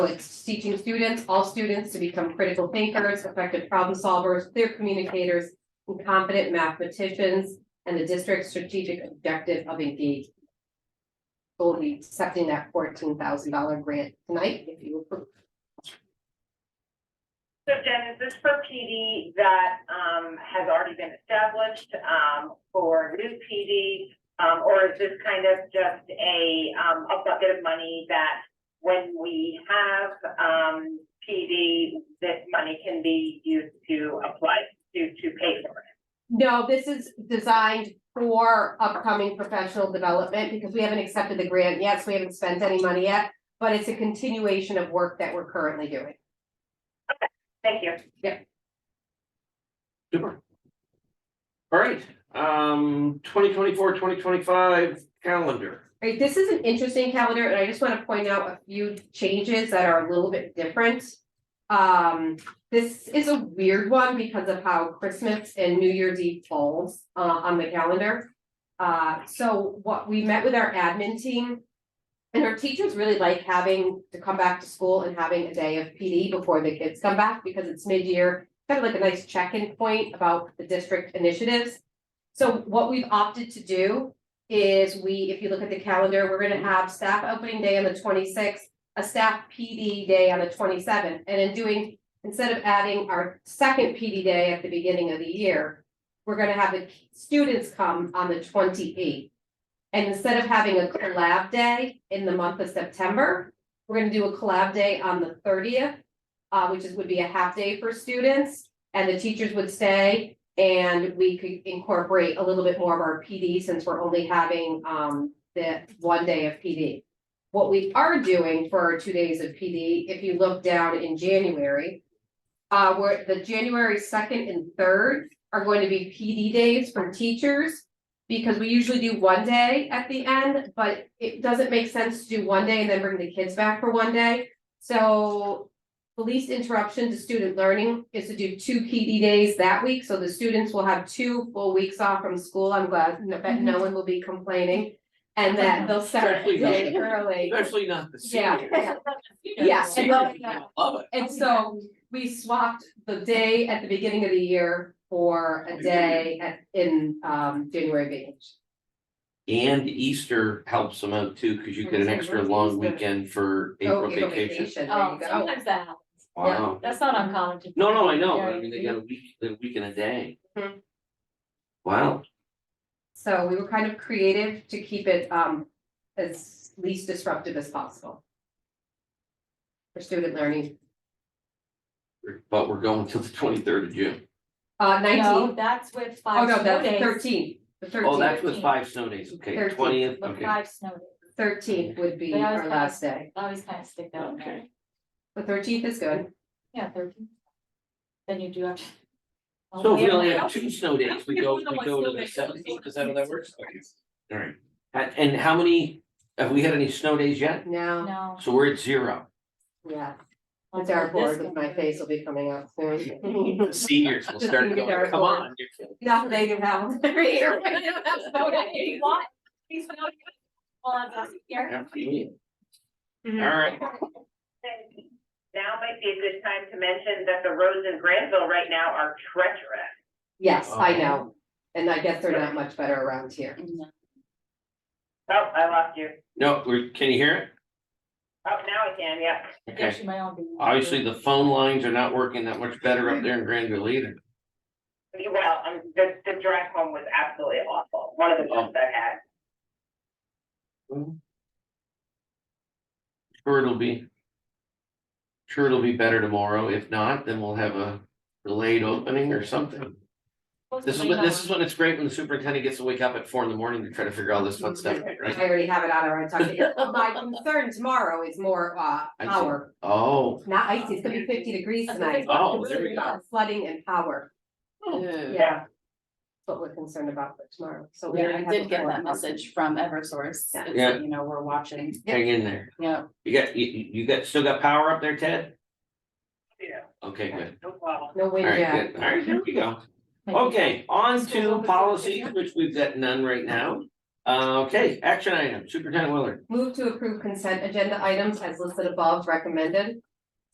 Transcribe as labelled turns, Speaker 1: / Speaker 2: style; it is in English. Speaker 1: It's teaching students, all students to become critical thinkers, effective problem solvers, clear communicators, and competent mathematicians, and the district's strategic objective of engagement. We'll be accepting that fourteen thousand dollar grant tonight if you approve.
Speaker 2: So Jen, is this for PD that, um, has already been established, um, for new PD? Um, or is this kind of just a, um, a bucket of money that when we have, um, PD, this money can be used to apply to, to pay for it?
Speaker 1: No, this is designed for upcoming professional development because we haven't accepted the grant yet, so we haven't spent any money yet. But it's a continuation of work that we're currently doing.
Speaker 2: Thank you.
Speaker 3: Super. All right, um, 2024-2025 calendar.
Speaker 1: Right, this is an interesting calendar, and I just wanna point out a few changes that are a little bit different. Um, this is a weird one because of how Christmas and New Year's Eve falls uh on the calendar. Uh, so what, we met with our admin team. And our teachers really like having to come back to school and having a day of PD before the kids come back because it's mid-year. Kind of like a nice check-in point about the district initiatives. So what we've opted to do is we, if you look at the calendar, we're gonna have staff opening day on the twenty-sixth, a staff PD day on the twenty-seventh, and in doing, instead of adding our second PD day at the beginning of the year, we're gonna have the students come on the twenty-eighth. And instead of having a collab day in the month of September, we're gonna do a collab day on the thirtieth, uh, which is, would be a half day for students, and the teachers would stay, and we could incorporate a little bit more of our PD since we're only having um the one day of PD. What we are doing for our two days of PD, if you look down in January. Uh, where the January second and third are going to be PD days for teachers. Because we usually do one day at the end, but it doesn't make sense to do one day and then bring the kids back for one day. So the least interruption to student learning is to do two PD days that week, so the students will have two full weeks off from school, I'm glad, no- bet no one will be complaining. And that they'll start a day early,
Speaker 3: Especially not the
Speaker 1: Yeah.
Speaker 3: seniors.
Speaker 1: yeah, and Oh,
Speaker 3: Seniors
Speaker 1: they'll-
Speaker 3: are gonna Love it.
Speaker 1: and so
Speaker 4: um,
Speaker 1: we swapped the day at the beginning of the year for a day at, in, um, January vacation.
Speaker 3: And Easter helps them out too, because you get an extra long weekend for
Speaker 1: Oh,
Speaker 3: April vacation.
Speaker 1: There you
Speaker 4: Oh,
Speaker 1: go.
Speaker 4: sometimes that happens.
Speaker 3: Wow.
Speaker 4: That's not uncommon. to-
Speaker 3: No, no, I know,
Speaker 4: Yeah,
Speaker 3: I mean, they got a week, a week and a day.
Speaker 1: Mhm.
Speaker 3: Wow,
Speaker 1: So we were kind of creative to keep it, um, as least disruptive as possible. For student learning,
Speaker 3: but we're going till the twenty-third of June.
Speaker 1: uh,
Speaker 4: No,
Speaker 1: nineteen,
Speaker 4: that's with
Speaker 1: oh
Speaker 4: five
Speaker 1: no,
Speaker 4: snow
Speaker 1: that's
Speaker 4: days.
Speaker 1: thirteen, the
Speaker 3: Oh, that's
Speaker 1: thirteenth,
Speaker 3: with five snow days, okay,
Speaker 1: Thirteenth.
Speaker 3: twentieth,
Speaker 4: With
Speaker 3: okay.
Speaker 4: five snow days.
Speaker 1: thirteenth would be
Speaker 4: They always
Speaker 1: our
Speaker 4: have-
Speaker 1: last day,
Speaker 4: I Always kind of stick that in there.
Speaker 3: Okay.
Speaker 1: the thirteenth is good.
Speaker 4: Yeah, thirteen. Then you do have. to- Oh,
Speaker 3: So if
Speaker 4: we
Speaker 3: we
Speaker 4: have-
Speaker 3: only have two snow days, we go,
Speaker 4: We don't
Speaker 3: we
Speaker 4: want
Speaker 3: go
Speaker 4: snow
Speaker 3: to the
Speaker 4: days, so it's
Speaker 3: seventeenth,
Speaker 4: only
Speaker 3: is that how that works?
Speaker 4: two.
Speaker 3: Alright, and, and how many, have we had any snow days yet?
Speaker 1: No,
Speaker 4: No.
Speaker 3: So we're at zero.
Speaker 1: yeah,
Speaker 4: I'll
Speaker 1: it's our
Speaker 4: do this
Speaker 1: board with
Speaker 4: one.
Speaker 1: my face will be coming out soon.
Speaker 3: The seniors will
Speaker 1: Just
Speaker 3: start
Speaker 1: need to
Speaker 3: going,
Speaker 1: get
Speaker 3: come
Speaker 1: our-
Speaker 3: on, you're kidding.
Speaker 1: Not they can have every year. We don't have snow
Speaker 4: Okay, if
Speaker 1: days.
Speaker 4: you want, please go to- Well, I'm not here.
Speaker 3: Have you?
Speaker 5: Mm-hmm.
Speaker 1: Mhm.
Speaker 3: Alright,
Speaker 2: And Now might be a good time to mention that the roads in Granville right now are treacherous.
Speaker 1: Yes, I
Speaker 4: Mm-hmm.
Speaker 3: Oh.
Speaker 1: know, and I guess they're not much better around here.
Speaker 2: Oh, I lost you.
Speaker 3: no, we're, can you hear
Speaker 2: Oh, now I can, yeah.
Speaker 3: it? Okay,
Speaker 4: Actually, my own. video.
Speaker 3: obviously the phone lines are not working that much better up there in Granville either.
Speaker 2: Well, um, the, the drive home was absolutely awful, one of the ones I had.
Speaker 3: Sure it'll be. Sure it'll be better tomorrow, if not, then we'll have a delayed opening or something.
Speaker 4: What's
Speaker 3: This is,
Speaker 4: the
Speaker 3: when- this
Speaker 4: name
Speaker 3: is when it's great when the superintendent gets to wake up at four in the morning to try to figure all this fun stuff, out,
Speaker 1: I
Speaker 3: right?
Speaker 1: already have it on our talking, my concern tomorrow is more uh
Speaker 3: I see.
Speaker 1: power,
Speaker 3: Oh,
Speaker 1: not icy, it's gonna be fifty degrees
Speaker 4: That's
Speaker 1: tonight.
Speaker 4: what I
Speaker 3: Oh,
Speaker 4: thought.
Speaker 3: there we go.
Speaker 1: Flooding and power,
Speaker 3: yeah,
Speaker 1: yeah. What we're concerned about for tomorrow, so. we
Speaker 5: Yeah,
Speaker 1: already
Speaker 5: I
Speaker 1: have a
Speaker 5: did get
Speaker 1: forecast.
Speaker 5: that message from Eversource.
Speaker 1: Yeah.
Speaker 5: It's, You know, we're watching.
Speaker 3: hang in there.
Speaker 5: Yeah.
Speaker 3: You got, you, you you got, still got power up there, Ted?
Speaker 2: Yeah,
Speaker 3: Okay, good.
Speaker 2: no problem.
Speaker 1: No
Speaker 3: All
Speaker 1: wind, yeah,
Speaker 3: right, good. All right, here we go.
Speaker 4: Thank you.
Speaker 3: Okay, on
Speaker 4: School
Speaker 3: to
Speaker 4: opens up
Speaker 3: policies,
Speaker 4: again.
Speaker 3: which we've got none right now. Uh, okay, action item, Superintendent Willard.
Speaker 1: Move to approve consent agenda items as listed above recommended.